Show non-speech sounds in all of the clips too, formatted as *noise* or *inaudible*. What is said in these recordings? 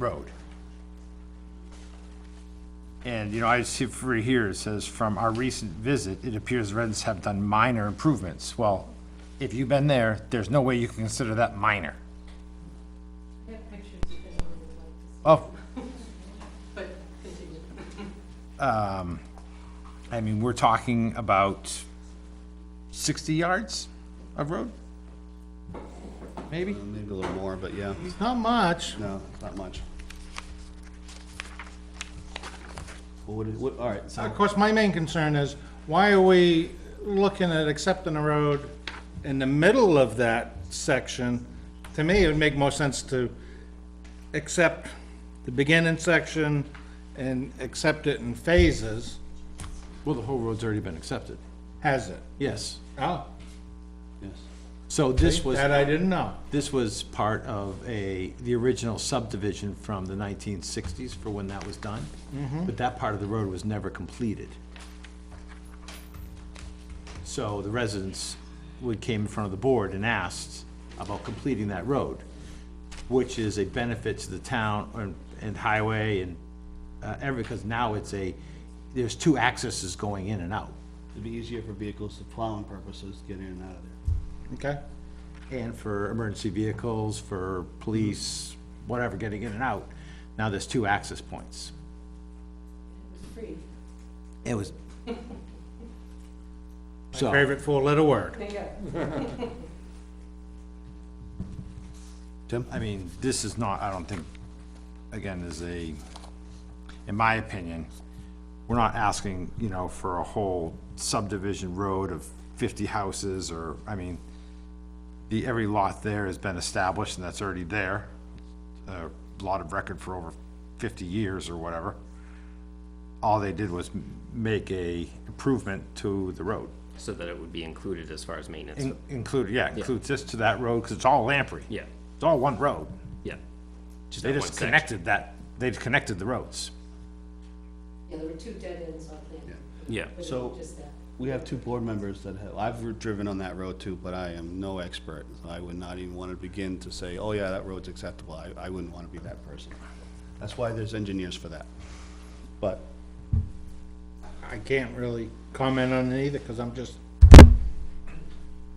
road. And, you know, I see for here, it says, from our recent visit, it appears residents have done minor improvements. Well, if you've been there, there's no way you can consider that minor. Oh, But continue. Um, I mean, we're talking about sixty yards of road? Maybe? Uh, Maybe a little more, but yeah, Not much. no, not much. What would it, what, all right, so, Of course, my main concern is, why are we looking at accepting a road in the middle of that section? To me, it would make more sense to accept the beginning section and accept it in phases. Well, the whole road's already been accepted, Has it? yes. Oh, yes. So this was, that I didn't know. this was part of a, the original subdivision from the nineteen sixties for when that was done. But that part of the road was never completed. So the residents would, came in front of the board and asked about completing that road, which is a benefit to the town and, and highway and, uh, every, because now it's a, there's two accesses going in and out. It'd be easier for vehicles to plowing purposes, to get in and out of there. Okay. And for emergency vehicles, for police, whatever, getting in and out. Now there's two access points. Free. It was. So, Favorite four-letter word. There you go. Tim? I mean, this is not, I don't think, again, is a, in my opinion, we're not asking, you know, for a whole subdivision road of fifty houses or, I mean, the, every lot there has been established and that's already there. A lot of record for over fifty years or whatever. All they did was m- make a improvement to the road. So that it would be included as far as maintenance, In- Include, yeah, include this to that road, cause it's all Lamprey. Yeah. It's all one road. yeah. Just They that one just section. connected that, they connected the roads. Yeah, there were two dead ends on there. Yeah, But it So- was Just that. We have two board members that have, I've driven on that road too, but I am no expert. I would not even want to begin to say, oh yeah, that road's acceptable. I, I wouldn't want to be that person. That's why there's engineers for that. But I can't really comment on it either, because I'm just,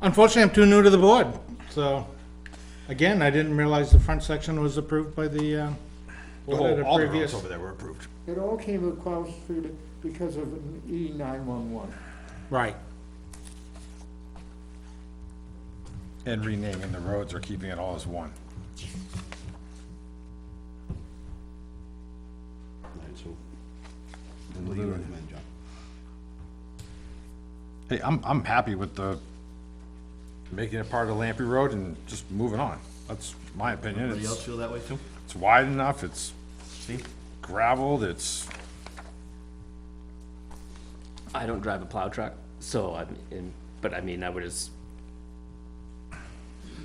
unfortunately, I'm too new to the board, so, again, I didn't realize the front section was approved by the, uh, the board at whole- a all the previous- roads over there were approved. It all came across through the, because of an E nine-one-one. Right. And renaming the roads or keeping it all as one. All right, so, what do you recommend, John? Hey, I'm, I'm happy with the, making it part of Lamprey Road and just moving on. That's my opinion. Anybody else It's, feel that way too? it's wide enough, it's gravelled, it's, I don't drive a plow truck, so I'm in, but I mean, I would just.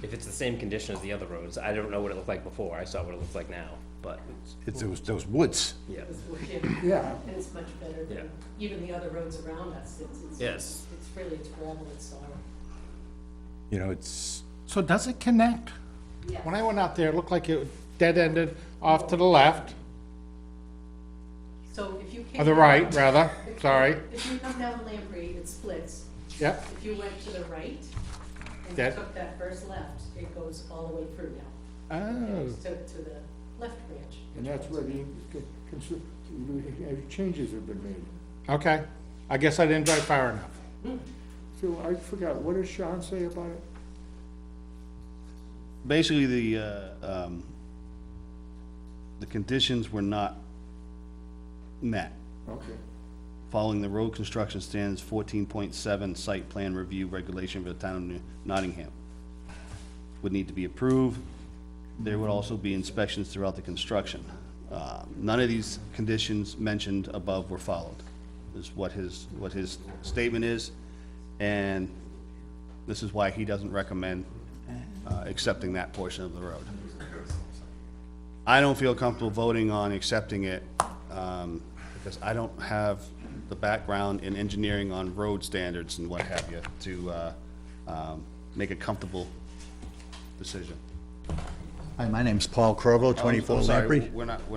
If it's the same condition as the other roads, I don't know what it looked like before, I saw what it looks like now, but, it's, it was, those woods. yeah, It was *laughs* working. Yeah. And it's much better Yeah. than even the other roads around us. It's, it's. Yes. It's really, it's gravel, it's sorrow. You know, it's, So does it connect? When I went out there, it looked like it dead-ended off to the left, So if you came. or the down- right, rather, sorry, If you come down Lamprey, it splits. yep, If you went to the right and you That- took that first left, it goes all the way through now. It oh, goes to, to the left branch. And that's where the, consi- the changes have been made. okay, I guess I didn't drive far enough. So I forgot, what does Sean say about it? basically the, uh, um, the conditions were not met. Okay. Following the road construction standards fourteen point seven site plan review regulation for the town of New- Nottingham would need to be approved. There would also be inspections throughout the construction. Uh, None of these conditions mentioned above were followed, is what his, what his statement is. And this is why he doesn't recommend uh, accepting that portion of the road. I don't feel comfortable voting on accepting it, um, because I don't have the background in engineering on road standards and what have you to, uh, um, make a comfortable decision. Hi, my name's Paul Krovo, I'm 24 sorry, Lamprey. We're not, we're